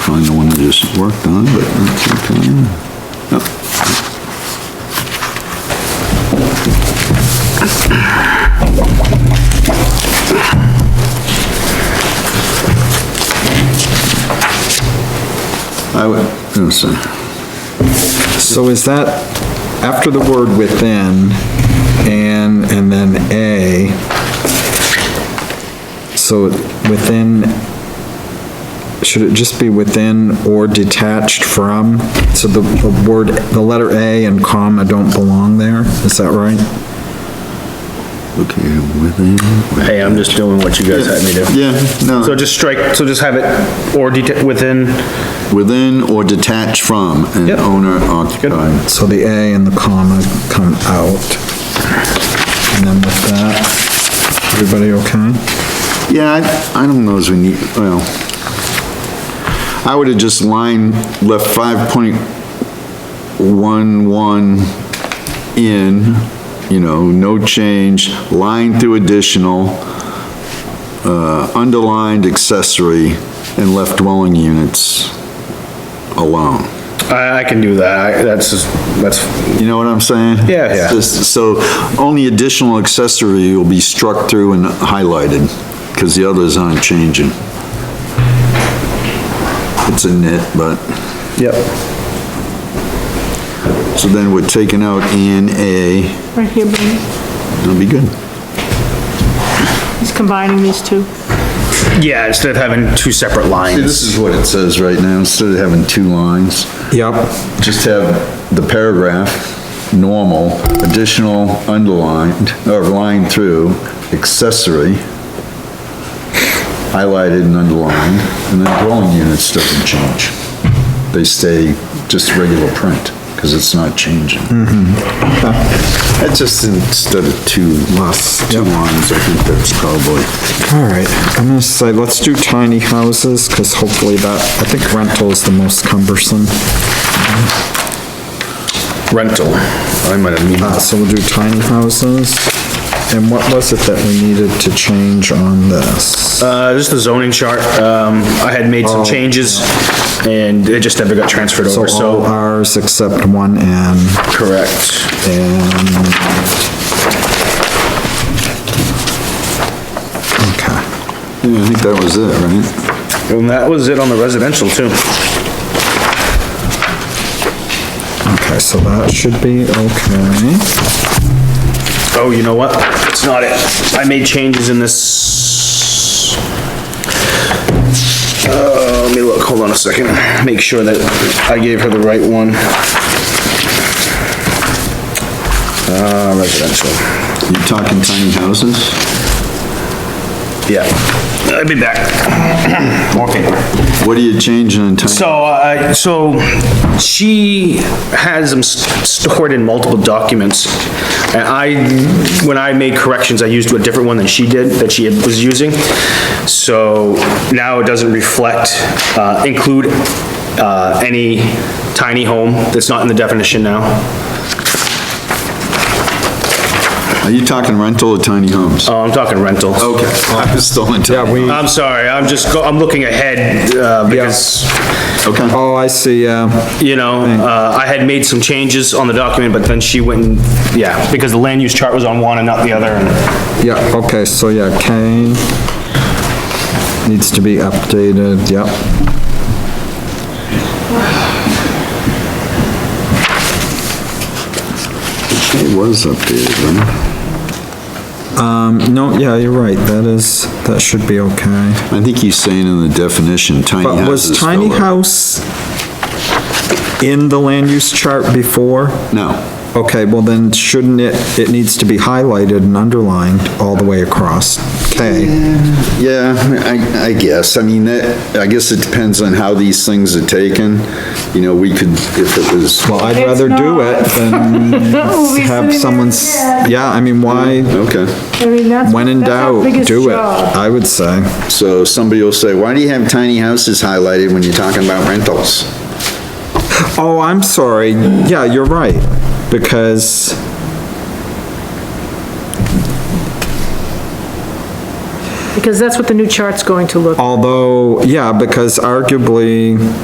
find the one I just worked on, but that's okay. Nope. I would, I'm sorry. So is that after the word within, and, and then A? So within, should it just be within or detached from? So the the word, the letter A and comma don't belong there, is that right? okay, within. Hey, I'm just doing what you guys had me do. Yeah, So no, just strike, so just have it, or deta, within, within or detached from an Yep. owner occupied. So the A and the comma come out. And then with that, everybody okay? Yeah, I, I don't know as we need, well, I would have just line, left five point one one in, you know, no change, line through additional, uh, underlined accessory, and left dwelling units alone. I, I can do that, I- that's, just- that's, You know what I'm saying? Yeah, yeah. It's just- So only additional accessory will be struck through and highlighted, because the others aren't changing. It's a nit, but, yep. so then we're taking out and A, Right here, Bernie. it'll be good. He's combining these two. Yeah, instead of having two separate lines. This is what it says right now, instead of having two lines, Yep. just have the paragraph, normal, additional underlined, or line through, accessory, highlighted and underlined, and then dwelling units doesn't change. They stay just regular print, because it's not changing. That's just instead of two, two lines, I think that's probably. All right, I'm gonna say, let's do tiny houses, because hopefully that, I think rental is the most cumbersome. Rental, I might have, Uh, mean- so we'll do tiny houses. And what was it that we needed to change on this? uh, this is the zoning chart, um, I had made some changes, and it just never got transferred So over, all so, Rs except one N, correct. and... Okay, Yeah, I think that was it, right? And that was it on the residential too. okay, so that should be okay. Oh, you know what? It's not it. I made changes in this. Uh, let me look, hold on a second, make sure that I gave her the right one. Uh, residential, You talking tiny houses? yeah. I'll be back. More paper. What are you changing in tiny? So, uh, so she has them s- stored in multiple documents. And I, when I made corrections, I used a different one than she did, that she had- was using. So now it doesn't reflect, uh, include, uh, any tiny home that's not in the definition now. Are you talking rental or tiny homes? Oh, I'm talking rental. Okay, I was still in Yeah, tiny. we, I'm sorry, I'm just, go- I'm looking ahead, uh, because Okay. oh, I see, yeah. you know, uh, I had made some changes on the document, but then she went and, yeah, because the land use chart was on one and not the other, and Yeah, okay, so yeah, K needs to be updated, yep. It was updated, right? No, yeah, you're right, that is, that should be okay. I think he's saying in the definition, tiny But houses. was tiny fill up. house in the land use chart before? No, Okay, well then shouldn't it, it needs to be highlighted and underlined all the way across. K, yeah, I, I guess, I mean, that, I guess it depends on how these things are taken. You know, we could, if it was, well, I'd It's rather do it not. than We'll be sitting have there, someone's, yeah. yeah, I mean, why, okay. I mean, that's, when in that's our doubt, biggest do it, job. I would say. So somebody will say, why do you have tiny houses highlighted when you're talking about rentals? Oh, I'm sorry, yeah, you're right, because... Because that's what the new chart's going to look Although, yeah, because arguably,